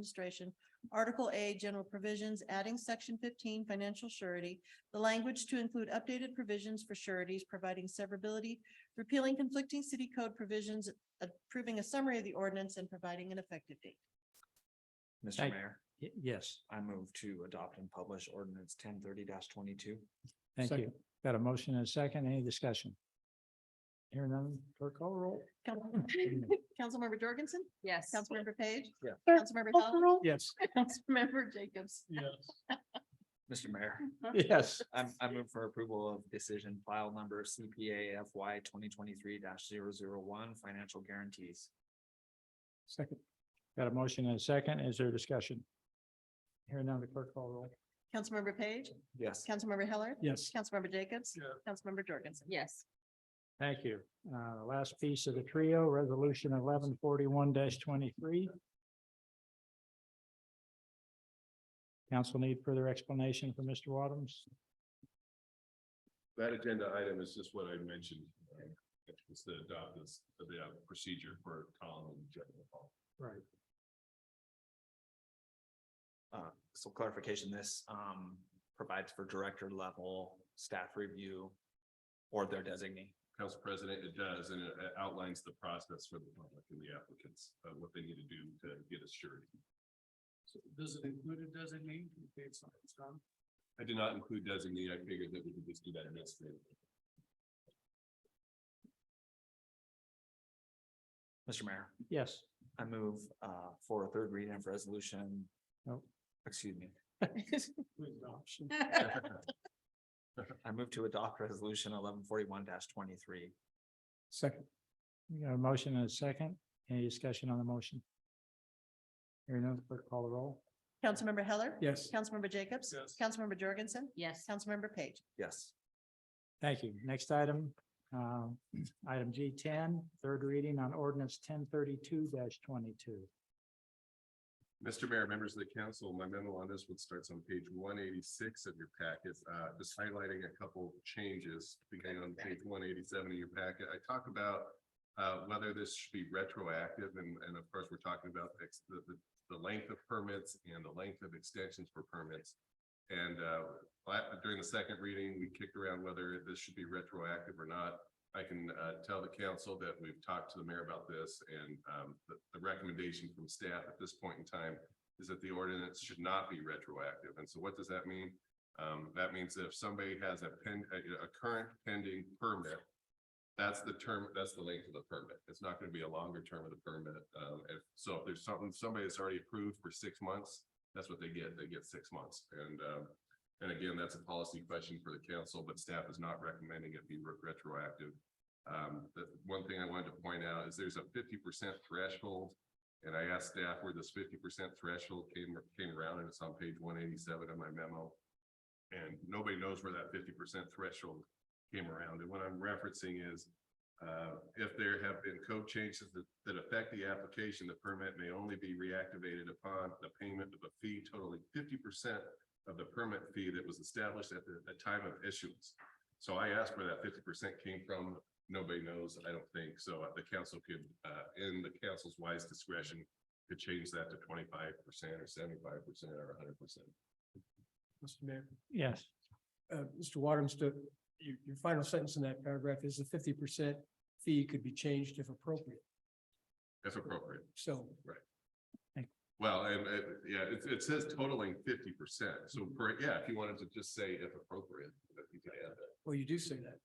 Administration, Article A, General Provisions, adding Section fifteen, Financial Surety, the language to include updated provisions for sureties, providing severability, repealing conflicting city code provisions, approving a summary of the ordinance, and providing an effective date. Mr. Thank- Mayor, Y- Yes, I move to adopt and publish ordinance ten thirty twenty-two. thank you. Second. Got a motion and a second. Any discussion? Here none, clerk call roll. Council- Councilmember Jorgensen? Yes. Councilmember Page? Yeah. Councilmember Howell? Yes. Councilmember Jacobs? Yes. Mr. Mayor, Yes. I, I move for approval of decision file number CPA FY twenty twenty-three 1 financial guarantees. Second. Got a motion and a second. Is there discussion? Here none, clerk call roll. Councilmember Page? Yes. Councilmember Heller? Yes. Councilmember Jacobs? Yeah. Councilmember Jorgensen? Yes. Thank you. Uh, last piece of the trio, resolution eleven forty-one twenty-three. Council need further explanation for Mr. Wadums? That agenda item is just what I mentioned. It's the adopt this, the uh, procedure for Colin and Jeff. Right. Uh, so clarification, this, um, provides for director level staff review or their designee. Council President, it does, and it outlines the process for the public and the applicants, uh, what they need to do to get assured. So does it include a designee? I did not include designee. I figured that we could just do that in this. Mr. Mayor, Yes. I move, uh, for a third reading of resolution. Nope. Excuse me. Councilmember I move to adopt resolution eleven forty-one twenty-three. Second. We got a motion and a second. Any discussion on the motion? Hearing none, clerk call the roll. Heller? Yes. Councilmember Jacobs? Yes. Councilmember Jorgensen? Yes. Councilmember Page? Yes. Thank you. Next item, um, item G 10 third reading on ordinance ten thirty-two twenty-two. Mr. Mayor, members of the council, my memo on this one starts on page one eighty-six of your packet, uh, just highlighting a couple changes beginning on page one eighty-seven of your packet. I talk about uh, whether this should be retroactive and, and of course, we're talking about ex- the, the, the length of permits and the length of extensions for permits. And, uh, la- during the second reading, we kicked around whether this should be retroactive or not. I can uh, tell the council that we've talked to the mayor about this and um, the the recommendation from staff at this point in time is that the ordinance should not be retroactive. And so what does that mean? Um, That means that if somebody has a pen, a a current pending permit, that's the term, that's the length of the permit. It's not going to be a longer term of the permit. Um, If, so if there's something, somebody that's already approved for six months, that's what they get. They get six months. And um, and again, that's a policy question for the council, but staff is not recommending it be re- retroactive. Um, the one thing I wanted to point out is there's a fifty percent threshold. And I asked staff where this fifty percent threshold came, came around and it's on page one eighty-seven of my memo. And nobody knows where that fifty percent threshold came around. And what I'm referencing is uh, if there have been code changes that, that affect the application, the permit may only be reactivated upon the payment of a fee totaling fifty percent of the permit fee that was established at the, the time of issuance. So I asked where that fifty percent came from. Nobody knows, I don't think. So uh, the council could, uh, in the council's wise discretion, could change that to twenty-five percent or seventy-five percent or hundred percent. Mr. Mayor, Yes. uh, Mr. Waterms, to, your, your final sentence in that paragraph is the fifty percent fee could be changed if appropriate. If appropriate. So Well, and, uh, yeah, it, it says totaling fifty percent. So, for- yeah, if you wanted to just say if appropriate, that you could add that. Well, you do say that.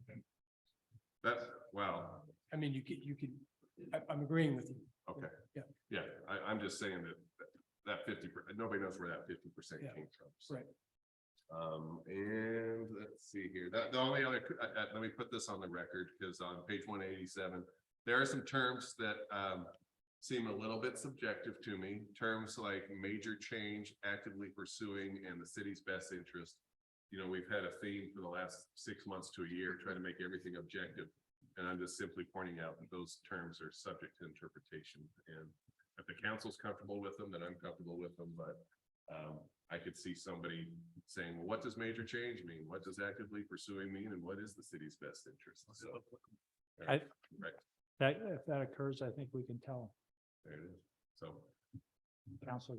That's, wow, I mean, you could, you could, I, I'm agreeing with you. Okay. Yeah. Yeah, I, I'm just saying that, that fifty, nobody knows where that fifty percent Yeah, came from. so. right. Um, and let's see here, that, the only other, uh, uh, let me put this on the record, because on page one eighty-seven, there are some terms that, um, seem a little bit subjective to me, terms like major change, actively pursuing, and the city's best interest. You know, we've had a theme for the last six months to a year, trying to make everything objective. And I'm just simply pointing out that those terms are subject to interpretation. And if the council's comfortable with them, then I'm comfortable with them, but um, I could see somebody saying, well, what does major change mean? What does actively pursuing mean? And what is the city's best interest? So I- Right, That, if that occurs, I think we can tell there it is. So council